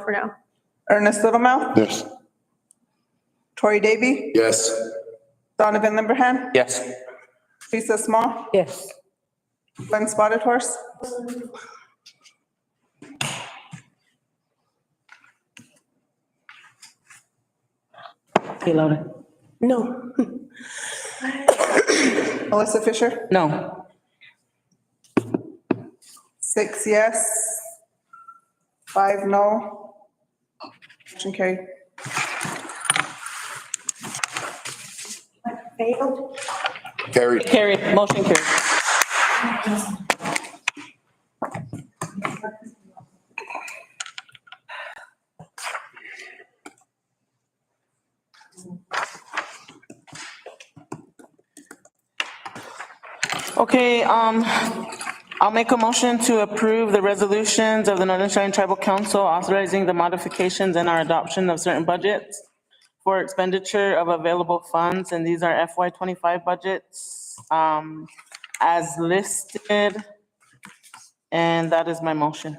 for now. Ernest Littlemouth, Yes. Tori Davy, Yes. Donovan Lumberhand, Yes. Teresa Small, Yes. Glenn Spotted Horse. Kelowna. No. Melissa Fisher, No. six yes, five no. Motion carried. Carried. Carried, motion carried. Okay, um, I'll make a motion to approve the resolutions of the Northern Cheyenne Tribal Council authorizing the modifications and our adoption of certain budgets for expenditure of available funds, and these are FY twenty-five budgets, um, as listed. And that is my motion.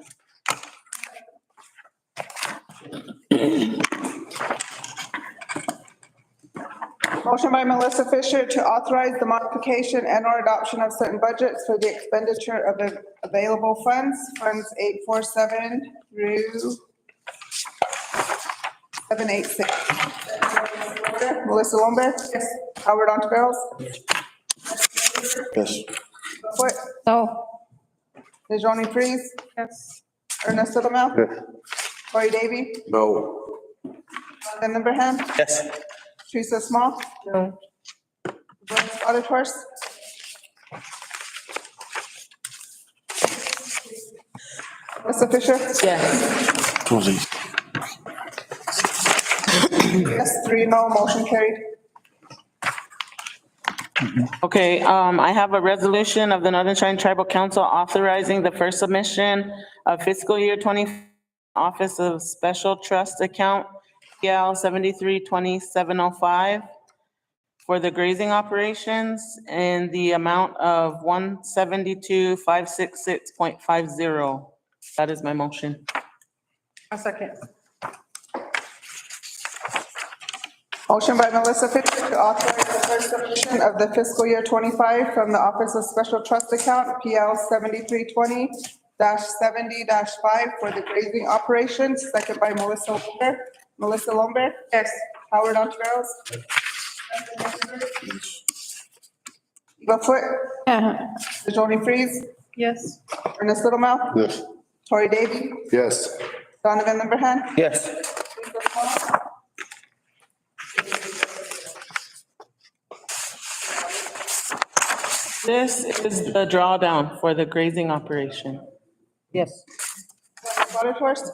Motion by Melissa Fisher to authorize the modification and/or adoption of certain budgets for the expenditure of av- available funds, funds 847 through 786. Melissa Lombard? Yes. Howard Montaveros? Yes. What? No. Dejoni Freeze? Yes. Ernest Littlemouth? Yes. Corey Davy? No. Glenn Lumberhand? Yes. Teresa Small? No. Glenn Spotted Horse? Melissa Fisher? Yes. Twinsies. Yes, three no, motion carried. Okay, um, I have a resolution of the Northern Cheyenne Tribal Council authorizing the first submission of fiscal year twenty Office of Special Trust Account, PL seventy-three twenty-seven oh five for the grazing operations in the amount of one seventy-two five six six point five zero. That is my motion. A second. Motion by Melissa Fisher to authorize the first submission of the fiscal year 25 from the Office of Special Trust Account, PL 7320-70-5 for the grazing operations, second by Melissa Lombard. Melissa Lombard? Yes. Howard Montaveros? Eva Foote? Joni Freeze? Yes. Ernest Littlemouth? Yes. Tori Davy? Yes. Donovan Lumberhand? Yes. This is the drawdown for the grazing operation. Yes. Spotted Horse?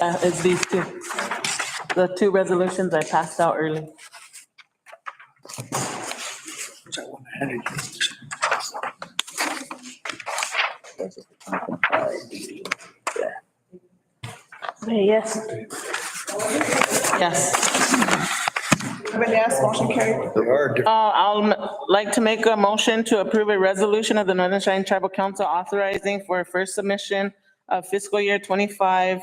Uh, It's these two, the two resolutions I passed out early. Yes. Yes. Urban yes, motion carried. They are different. Uh, I'll m- like to make a motion to approve a resolution of the Northern Cheyenne Tribal Council authorizing for first submission of fiscal year 25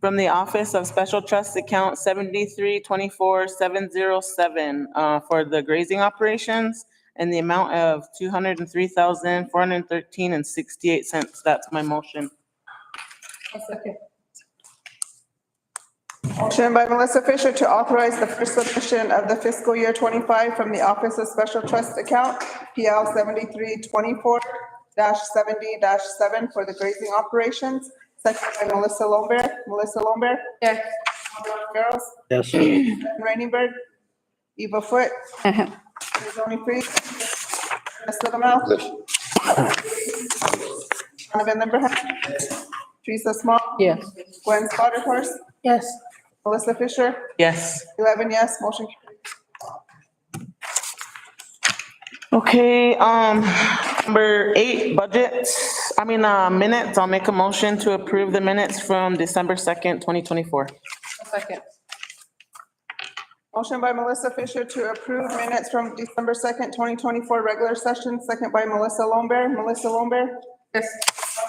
from the Office of Special Trust Account 7324707 uh, for the grazing operations and the amount of 203413 and 68 cents. That's my motion. Motion by Melissa Fisher to authorize the first submission of the fiscal year 25 from the Office of Special Trust Account, PL 7324-70-7 for the grazing operations, second by Melissa Lombard. Melissa Lombard? Yes. Girls? Yes. Raineyberg? Eva Foote? Tony Freeze? Ernest Littlemouth? Yes. Donovan Lumberhand? Teresa Small? Yes. Gwen Spotted Horse? Yes. Melissa Fisher? Yes. 11 yes, motion carried. Okay, um, number eight, budgets, I mean, uh, minutes, I'll make a motion to approve the minutes from December second, twenty twenty-four. Motion by Melissa Fisher to approve minutes from December 2nd, 2024, regular session, second by Melissa Lombard. Melissa Lombard? Yes.